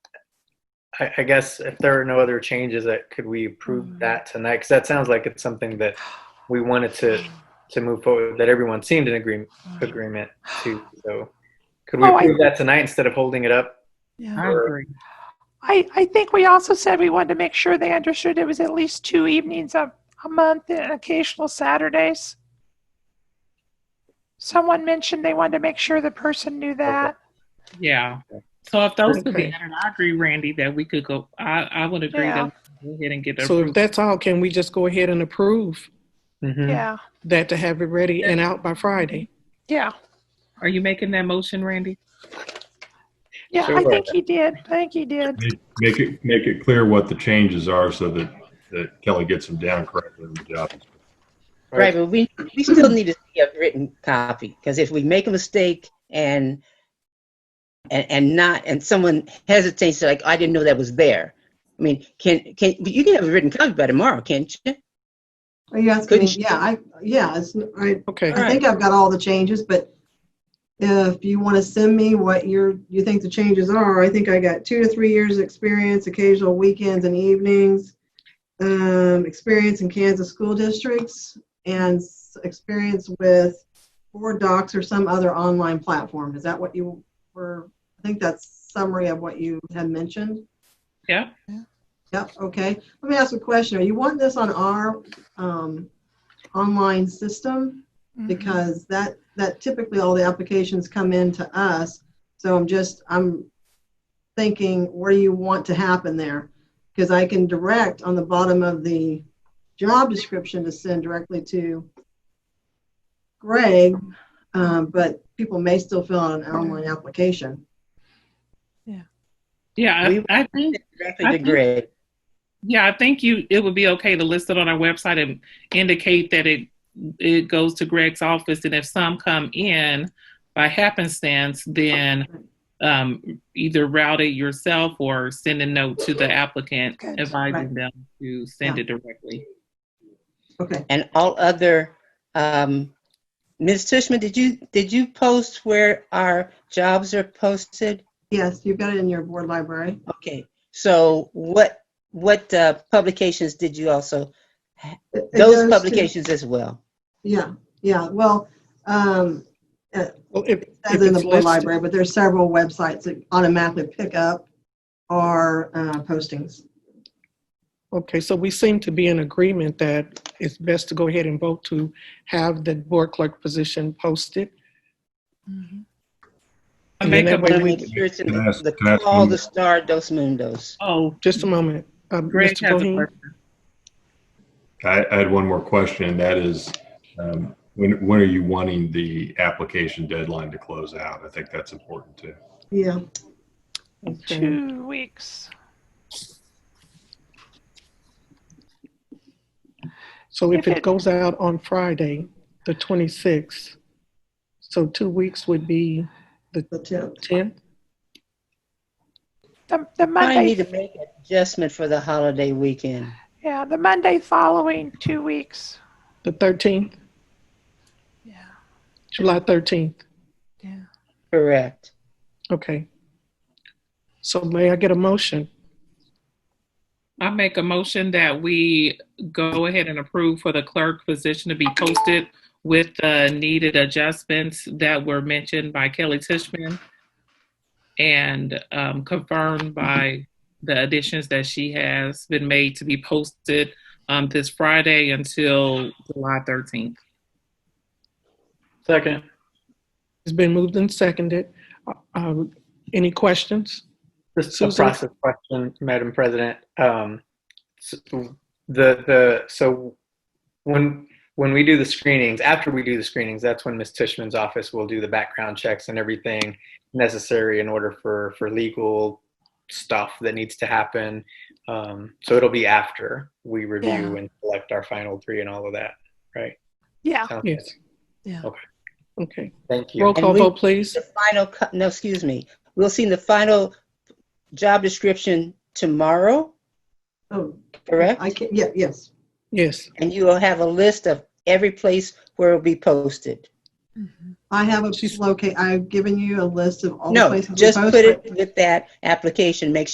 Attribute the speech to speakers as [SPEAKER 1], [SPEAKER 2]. [SPEAKER 1] I, I guess if there are no other changes, that could we approve
[SPEAKER 2] Mm-hmm.
[SPEAKER 1] that tonight? Because that sounds like it's something that we wanted to to move forward. That everyone seemed in agreement agreement to. So could we
[SPEAKER 2] Oh, I-
[SPEAKER 1] approve that tonight instead of holding it up?
[SPEAKER 3] Yeah.
[SPEAKER 4] I
[SPEAKER 1] Or-
[SPEAKER 4] agree.
[SPEAKER 2] I, I think we also said we wanted to make sure they understood it was at least two evenings a, a month and occasional Saturdays. Someone mentioned they wanted to make sure the person knew that.
[SPEAKER 3] Yeah. So if those could be
[SPEAKER 4] Okay.
[SPEAKER 3] added, I agree, Randy, that we could go, I, I would agree
[SPEAKER 2] Yeah.
[SPEAKER 3] that we could go ahead and get
[SPEAKER 4] So if
[SPEAKER 3] approved.
[SPEAKER 4] that's all, can we just go ahead and approve
[SPEAKER 1] Mhm.
[SPEAKER 2] Yeah,
[SPEAKER 4] that to have it ready and out by Friday?
[SPEAKER 2] yeah,
[SPEAKER 3] Are you making that motion, Randy?
[SPEAKER 2] yeah. I
[SPEAKER 1] Sure.
[SPEAKER 2] think he did. I think he did.
[SPEAKER 5] Make it, make it clear what the changes are so that, that Kelly gets them down correctly in the job.
[SPEAKER 1] Right.
[SPEAKER 6] Right, but we, we still need to see a written copy, because if we make a mistake and, and, and not, and someone hesitates, they're like, "Oh, I didn't know that was there. I mean, can, can, but you can have a written copy by tomorrow, can't you?
[SPEAKER 7] Are you asking me?
[SPEAKER 6] Couldn't you-
[SPEAKER 7] Yeah, I, yeah, it's, I,
[SPEAKER 4] Okay,
[SPEAKER 7] I think I've got all the changes, but if you want to send me what you're, you think the changes are, I think I got two to three years' experience, occasional weekends and evenings, um, experience in Kansas school districts, and s- experience with Board Docs or some other online platform. Is that what you were, I think that's summary of what you had mentioned?
[SPEAKER 3] Yeah.
[SPEAKER 7] Yep, okay. Let me ask a question. Are you wanting this on our um, online system?
[SPEAKER 2] Mm-hmm.
[SPEAKER 7] Because that, that typically all the applications come in to us. So I'm just, I'm thinking, what do you want to happen there? Because I can direct on the bottom of the job description to send directly to Greg, um, but people may still fill out an online application.
[SPEAKER 3] Yeah,
[SPEAKER 6] We-
[SPEAKER 3] I, I think,
[SPEAKER 6] Exactly,
[SPEAKER 3] I
[SPEAKER 6] the
[SPEAKER 3] think-
[SPEAKER 6] grid.
[SPEAKER 3] yeah, I think you, it would be okay to list it on our website and indicate that it, it goes to Greg's office. And if some come in by happenstance, then um, either route it yourself or send a note to the applicant
[SPEAKER 2] Good.
[SPEAKER 3] advising them to send it directly.
[SPEAKER 7] Okay.
[SPEAKER 6] And all other, um, Ms. Tushman, did you, did you post where our jobs are posted?
[SPEAKER 7] Yes, you've got it in your board library.
[SPEAKER 6] Okay, so what, what, uh, publications did you also,
[SPEAKER 7] It- it goes
[SPEAKER 6] those
[SPEAKER 7] to-
[SPEAKER 6] publications as well?
[SPEAKER 7] Yeah, yeah, well, um,
[SPEAKER 4] well, if, if
[SPEAKER 7] as in the
[SPEAKER 4] it's listed,
[SPEAKER 7] board library, but there's several websites that automatically pick up our uh, postings.
[SPEAKER 4] okay, so we seem to be in agreement that it's best to go ahead and vote to have the board clerk position posted.
[SPEAKER 2] Mm-hmm.
[SPEAKER 3] I
[SPEAKER 4] And
[SPEAKER 3] make
[SPEAKER 4] then
[SPEAKER 3] a,
[SPEAKER 4] that way
[SPEAKER 6] But I
[SPEAKER 4] we-
[SPEAKER 6] mean, sure it's in
[SPEAKER 5] Can I ask-
[SPEAKER 6] the
[SPEAKER 5] can I ask
[SPEAKER 6] call
[SPEAKER 5] one-
[SPEAKER 6] the star dos mundos.
[SPEAKER 3] oh,
[SPEAKER 4] Just a moment. Uh,
[SPEAKER 3] Greg
[SPEAKER 4] Mr.
[SPEAKER 3] has a
[SPEAKER 4] Bohin?
[SPEAKER 3] question.
[SPEAKER 5] I, I had one more question, and that is, um, when, when are you wanting the application deadline to close out? I think that's important too.
[SPEAKER 7] Yeah,
[SPEAKER 4] Okay.
[SPEAKER 2] Two weeks.
[SPEAKER 4] So if
[SPEAKER 2] If
[SPEAKER 4] it
[SPEAKER 2] it-
[SPEAKER 4] goes out on Friday, the 26th, so two weeks would be
[SPEAKER 7] the tip.
[SPEAKER 4] 10th?
[SPEAKER 2] The, the
[SPEAKER 6] I
[SPEAKER 2] Monday,
[SPEAKER 6] need to make an adjustment for the holiday weekend.
[SPEAKER 2] yeah, the Monday following two weeks.
[SPEAKER 4] The 13th,
[SPEAKER 2] Yeah.
[SPEAKER 4] July 13th?
[SPEAKER 6] Correct.
[SPEAKER 4] Okay. So may I get a motion?
[SPEAKER 3] I make a motion that we go ahead and approve for the clerk position to be posted with the needed adjustments that were mentioned by Kelly Tishman and um, confirmed by the additions that she has been made to be posted um, this Friday until July 13th.
[SPEAKER 1] Second.
[SPEAKER 4] It's been moved and seconded. Uh, um, Any questions?
[SPEAKER 1] Just a
[SPEAKER 4] Susan?
[SPEAKER 1] process question, Madam President. Um, s- the, the, so when, when we do the screenings, after we do the screenings, that's when Ms. Tishman's office will do the background checks and everything necessary in order for, for legal stuff that needs to happen. Um, so it'll be after we review
[SPEAKER 2] Yeah.
[SPEAKER 1] and select our final three and all of that, right?
[SPEAKER 2] Yeah.
[SPEAKER 1] Sounds good.
[SPEAKER 4] Yes.
[SPEAKER 2] Yeah.
[SPEAKER 1] Okay.
[SPEAKER 4] Okay.
[SPEAKER 1] Thank you.
[SPEAKER 4] Roll
[SPEAKER 6] And
[SPEAKER 4] call
[SPEAKER 6] we-
[SPEAKER 4] vote, please.
[SPEAKER 6] The final, co- no, excuse me. We'll see the final job description tomorrow,
[SPEAKER 7] Oh,
[SPEAKER 6] correct?
[SPEAKER 7] I can, yeah, yes.
[SPEAKER 4] Yes.
[SPEAKER 6] And you will have a list of every place where it'll be posted. Mm-hmm.
[SPEAKER 7] I have a
[SPEAKER 4] She's-
[SPEAKER 7] locate, I've given you a list of all the
[SPEAKER 6] No,
[SPEAKER 7] places. we
[SPEAKER 6] just
[SPEAKER 7] post
[SPEAKER 6] put
[SPEAKER 7] it.
[SPEAKER 6] it with that application. Make